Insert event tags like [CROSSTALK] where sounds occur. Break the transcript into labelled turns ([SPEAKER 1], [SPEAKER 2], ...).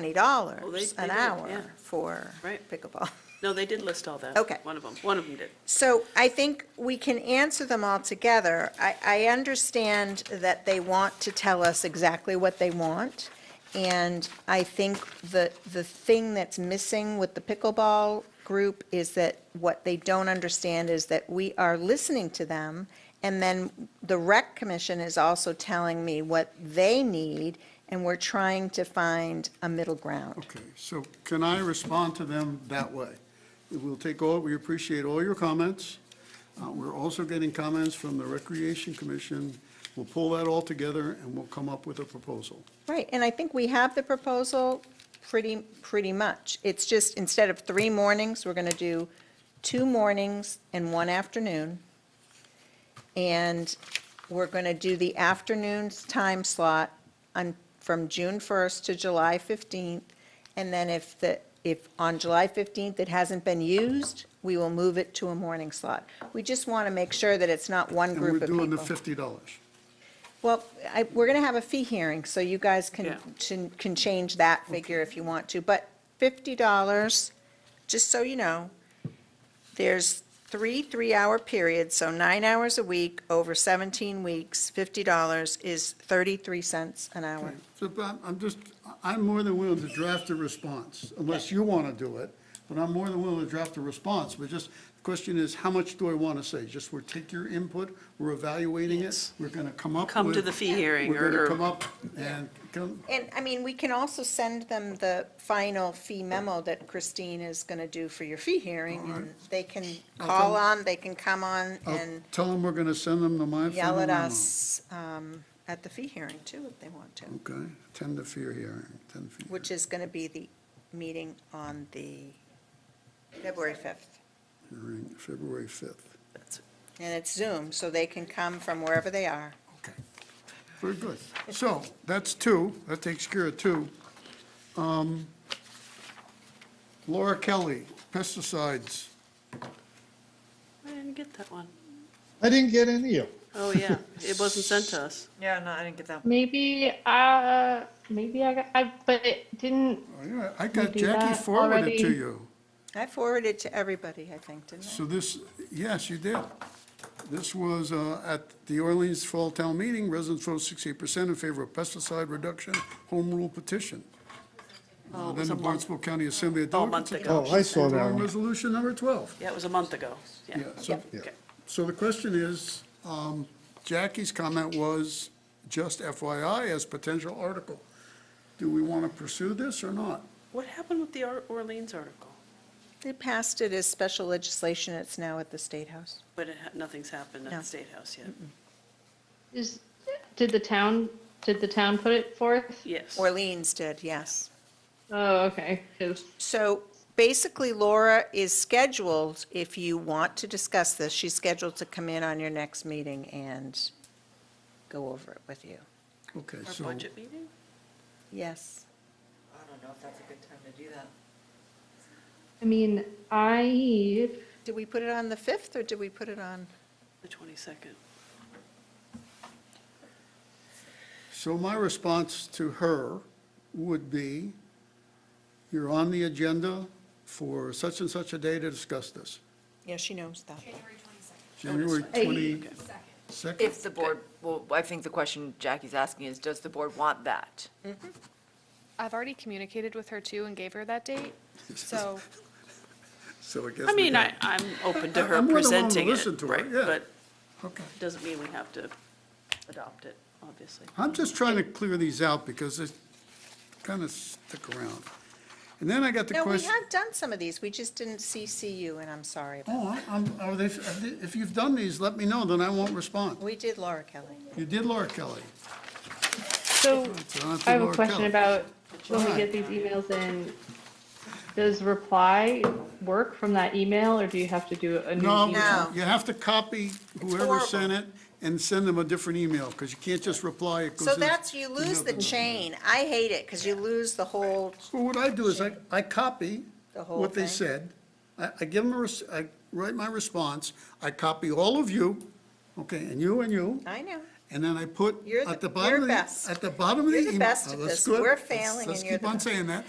[SPEAKER 1] twenty
[SPEAKER 2] Oh, they-
[SPEAKER 1] dollars
[SPEAKER 2] they
[SPEAKER 1] an
[SPEAKER 2] did, yeah.
[SPEAKER 1] hour for
[SPEAKER 2] Right.
[SPEAKER 1] pickleball.
[SPEAKER 2] No, they did list all that.
[SPEAKER 1] Okay.
[SPEAKER 2] One of them, one of them did.
[SPEAKER 1] So I think we can answer them all together. I, I understand that they want to tell us exactly what they want. And I think the, the thing that's missing with the pickleball group is that what they don't understand is that we are listening to them. And then the rec commission is also telling me what they need, and we're trying to find a middle ground.
[SPEAKER 3] Okay, so can I respond to them that way? We'll take all, we appreciate all your comments. Uh, We're also getting comments from the Recreation Commission. We'll pull that all together and we'll come up with a proposal.
[SPEAKER 1] Right, and I think we have the proposal pretty, pretty much. It's just, instead of three mornings, we're gonna do two mornings and one afternoon. And we're gonna do the afternoon's time slot on, from June first to July fifteenth. And then if the, if on July fifteenth it hasn't been used, we will move it to a morning slot. We just wanna make sure that it's not one
[SPEAKER 3] And we're
[SPEAKER 1] group of people.
[SPEAKER 3] doing the fifty dollars.
[SPEAKER 1] Well, I, we're gonna have a fee hearing, so you guys
[SPEAKER 2] Yeah.
[SPEAKER 1] can, can- can change that figure if you want to, but fifty dollars, just so you know, there's three three-hour periods, so nine hours a week over seventeen weeks, fifty dollars is thirty-three cents an hour.
[SPEAKER 3] So, but I'm- I'm just, I'm more than willing to draft a response, unless you want to do it, but I'm more than willing to draft a response, but just, the question is, how much do I want to say? Just we're take your input, we're evaluating it, we're going to come up with.
[SPEAKER 2] Come to the fee hearing
[SPEAKER 3] We're going
[SPEAKER 2] or-
[SPEAKER 3] to come up and come,
[SPEAKER 1] And, I mean, we can also send them the final fee memo that Christine is gonna do for your fee hearing, and they can call on, they can come on
[SPEAKER 3] I'll
[SPEAKER 1] and
[SPEAKER 3] Oh, tell them we're going to send them the my.
[SPEAKER 1] yell
[SPEAKER 3] formal
[SPEAKER 1] at
[SPEAKER 3] memo.
[SPEAKER 1] us, um, at the fee hearing too, if they want to.
[SPEAKER 3] Okay, attend the fee hearing, attend fee.
[SPEAKER 1] which is going to be the meeting on the February 5th.
[SPEAKER 3] hearing, February 5th.
[SPEAKER 2] That's-
[SPEAKER 1] And it's Zoom, so they can come from wherever they are.
[SPEAKER 3] Okay, very good. So that's two, that takes care of two. Um, Laura Kelly, pesticides.
[SPEAKER 2] I didn't get that one.
[SPEAKER 4] I didn't get any of them.
[SPEAKER 1] [LAUGHS]
[SPEAKER 2] Oh, yeah, it wasn't sent to us.
[SPEAKER 5] Yeah, no, I didn't get that.
[SPEAKER 6] Maybe, uh, maybe I got, I, but it didn't,
[SPEAKER 3] Oh, yeah, I got
[SPEAKER 6] We do
[SPEAKER 3] Jackie
[SPEAKER 6] that
[SPEAKER 3] forwarded to
[SPEAKER 6] already.
[SPEAKER 3] you.
[SPEAKER 1] I forwarded to everybody, I think, didn't I?
[SPEAKER 3] So this, yes, you did. This was uh, at the Orleans Fall Town Meeting, residents voted 68% in favor of pesticide reduction, home rule petition.
[SPEAKER 2] Oh, it
[SPEAKER 3] Uh,
[SPEAKER 2] was
[SPEAKER 3] Then the
[SPEAKER 2] a month-
[SPEAKER 3] Barnstable County Assembly
[SPEAKER 2] Oh, a
[SPEAKER 3] adopted.
[SPEAKER 2] month ago.
[SPEAKER 4] Oh, I saw
[SPEAKER 3] We're
[SPEAKER 4] that
[SPEAKER 3] on
[SPEAKER 4] one.
[SPEAKER 3] Resolution number 12.
[SPEAKER 2] Yeah, it was a month ago. Yeah.
[SPEAKER 3] Yeah, so,
[SPEAKER 4] Yeah.
[SPEAKER 3] so the question is, um, Jackie's comment was just FYI as potential article. Do we want to pursue this or not?
[SPEAKER 2] What happened with the Or- Orleans article?
[SPEAKER 1] They passed it as special legislation, it's now at the State House.
[SPEAKER 2] But it ha- nothing's happened at
[SPEAKER 1] No.
[SPEAKER 2] the State House yet.
[SPEAKER 6] is, did the town, did the town put it forth?
[SPEAKER 2] Yes.
[SPEAKER 1] Orleans did, yes.
[SPEAKER 6] Oh, okay, 'cause-
[SPEAKER 1] So basically Laura is scheduled, if you want to discuss this, she's scheduled to come in on your next meeting and go over it with you.
[SPEAKER 3] Okay,
[SPEAKER 2] Our
[SPEAKER 3] so,
[SPEAKER 2] budget meeting?
[SPEAKER 1] Yes.
[SPEAKER 5] I don't know if that's a good time to do that.
[SPEAKER 6] I mean, I,
[SPEAKER 1] Did we put it on the 5th, or did we put it on?
[SPEAKER 2] The 22nd.
[SPEAKER 3] so my response to her would be, you're on the agenda for such and such a day to discuss this,
[SPEAKER 1] Yeah, she knows that.
[SPEAKER 3] January
[SPEAKER 6] Hey.
[SPEAKER 3] 22nd.
[SPEAKER 5] If the board, well, I think the question Jackie's asking is, does the board want that?
[SPEAKER 7] I've already communicated with her too and gave her that date, so.
[SPEAKER 3] [LAUGHS] So I guess.
[SPEAKER 2] I
[SPEAKER 3] we
[SPEAKER 2] mean, I,
[SPEAKER 3] got-
[SPEAKER 2] I'm open to
[SPEAKER 3] I-
[SPEAKER 2] her
[SPEAKER 3] I'm more than willing to
[SPEAKER 2] presenting
[SPEAKER 3] listen
[SPEAKER 2] it,
[SPEAKER 3] to her,
[SPEAKER 2] right?
[SPEAKER 3] yeah.
[SPEAKER 2] But
[SPEAKER 3] Okay.
[SPEAKER 2] doesn't mean we have to adopt it, obviously.
[SPEAKER 3] I'm just trying to clear these out because they kind of stick around. And then I got the
[SPEAKER 1] No, we
[SPEAKER 3] question.
[SPEAKER 1] have done some of these, we just didn't CC you, and I'm sorry about
[SPEAKER 3] Oh, I- I'm, are they, if you've done these, let me know, then I won't respond.
[SPEAKER 1] that. We did Laura Kelly.
[SPEAKER 3] You did Laura Kelly.
[SPEAKER 6] so
[SPEAKER 3] It's on to
[SPEAKER 6] I have a
[SPEAKER 3] Laura
[SPEAKER 6] question
[SPEAKER 3] Kelly.
[SPEAKER 6] about when we
[SPEAKER 3] Why?
[SPEAKER 6] get these emails in, does reply work from that email or do you have to do a new
[SPEAKER 3] No,
[SPEAKER 6] email?
[SPEAKER 1] No.
[SPEAKER 3] you have to copy whoever
[SPEAKER 1] horrible.
[SPEAKER 3] sent it and send them a different email, because you can't just reply, it goes
[SPEAKER 1] So
[SPEAKER 3] in the-
[SPEAKER 1] that's, you lose the
[SPEAKER 3] another-
[SPEAKER 1] chain, I hate it, because you lose the whole,
[SPEAKER 3] Well, what I do is I, I copy
[SPEAKER 1] The whole
[SPEAKER 3] what they
[SPEAKER 1] thing?
[SPEAKER 3] said. I, I give them, a res- I write my response, I copy all of you, okay, and you and you,
[SPEAKER 1] I know,
[SPEAKER 3] And then I put
[SPEAKER 1] You're the-
[SPEAKER 3] at the
[SPEAKER 1] you're
[SPEAKER 3] bottom of the,
[SPEAKER 1] best.
[SPEAKER 3] at the bottom of the
[SPEAKER 1] You're
[SPEAKER 3] email.
[SPEAKER 1] the best
[SPEAKER 3] oh,
[SPEAKER 1] at
[SPEAKER 3] that's
[SPEAKER 1] this.
[SPEAKER 3] good.
[SPEAKER 1] We're
[SPEAKER 3] Let's-
[SPEAKER 1] failing and you're
[SPEAKER 3] Let's keep
[SPEAKER 1] the
[SPEAKER 3] on
[SPEAKER 1] best.
[SPEAKER 3] saying that.